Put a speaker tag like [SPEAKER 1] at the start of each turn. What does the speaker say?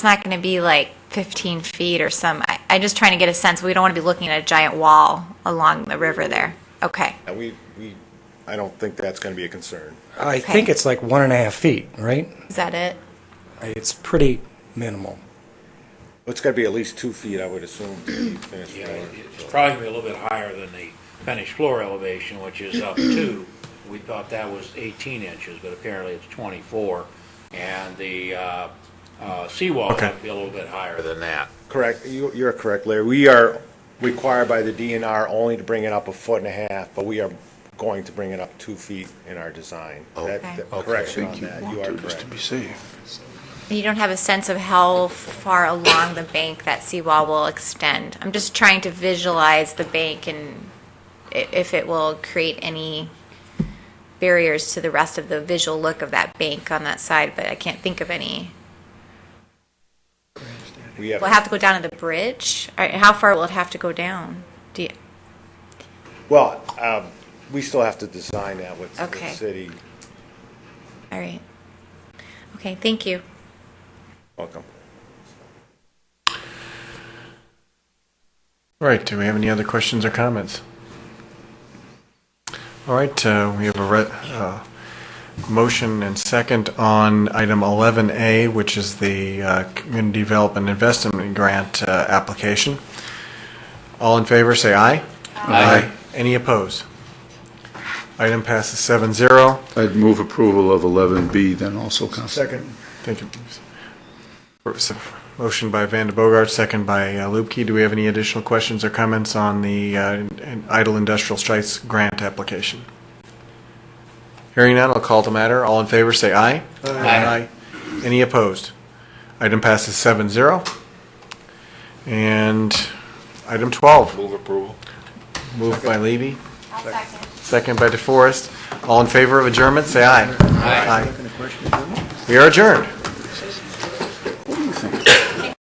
[SPEAKER 1] it's not going to be like 15 feet or some, I, I'm just trying to get a sense. We don't want to be looking at a giant wall along the river there. Okay.
[SPEAKER 2] And we, we, I don't think that's going to be a concern.
[SPEAKER 3] I think it's like one and a half feet, right?
[SPEAKER 1] Is that it?
[SPEAKER 3] It's pretty minimal.
[SPEAKER 2] It's got to be at least two feet, I would assume, to be finished
[SPEAKER 4] Yeah,
[SPEAKER 2] floor.
[SPEAKER 4] it's
[SPEAKER 2] So-
[SPEAKER 4] probably gonna be a little bit higher than the finished floor elevation, which is up to, we thought that was 18 inches, but apparently it's 24. And the uh, uh, seawall
[SPEAKER 5] Okay.
[SPEAKER 4] would be a little bit higher than that.
[SPEAKER 2] Correct, you, you're correct, Larry. We are required by the DNR only to bring it up a foot and a half, but we are going to bring it up two feet in our design. That-
[SPEAKER 1] Okay.
[SPEAKER 2] that- Correction on that, you are
[SPEAKER 5] Just
[SPEAKER 2] correct.
[SPEAKER 5] to be safe.
[SPEAKER 1] You don't have a sense of how far along the bank that seawall will extend. I'm just trying to visualize the bank and i- if it will create any barriers to the rest of the visual look of that bank on that side, but I can't think of any.
[SPEAKER 2] We
[SPEAKER 1] Will it have to go down to the bridge? All right, How far will it have to go down? Do you,
[SPEAKER 2] Well, um, we still have to design that with with the
[SPEAKER 1] Okay.
[SPEAKER 2] city.
[SPEAKER 1] all right. Okay, thank you.
[SPEAKER 2] Welcome.
[SPEAKER 5] All right, do we have any other questions or comments? All right, uh, we have a re- uh, motion and second on item 11A, which is the uh, Community Development Investment Grant uh, application. All in favor, say aye. Aye. Any opposed? Item passes 7-0.
[SPEAKER 6] I'd move approval of 11B then also, Counselor.
[SPEAKER 5] Thank you. Motion by Van de Bogart, second by uh, Lupke. Do we have any additional questions or comments on the uh, in- in- Idle Industrial Sites grant application? Hearing none, I'll call the matter. All in favor, say aye. Aye. Any opposed? Item passes seven zero. And item 12. Move approval. Moved by Levy. second. Second by DeForest. All in favor of adjournment, say aye. Aye. We are adjourned.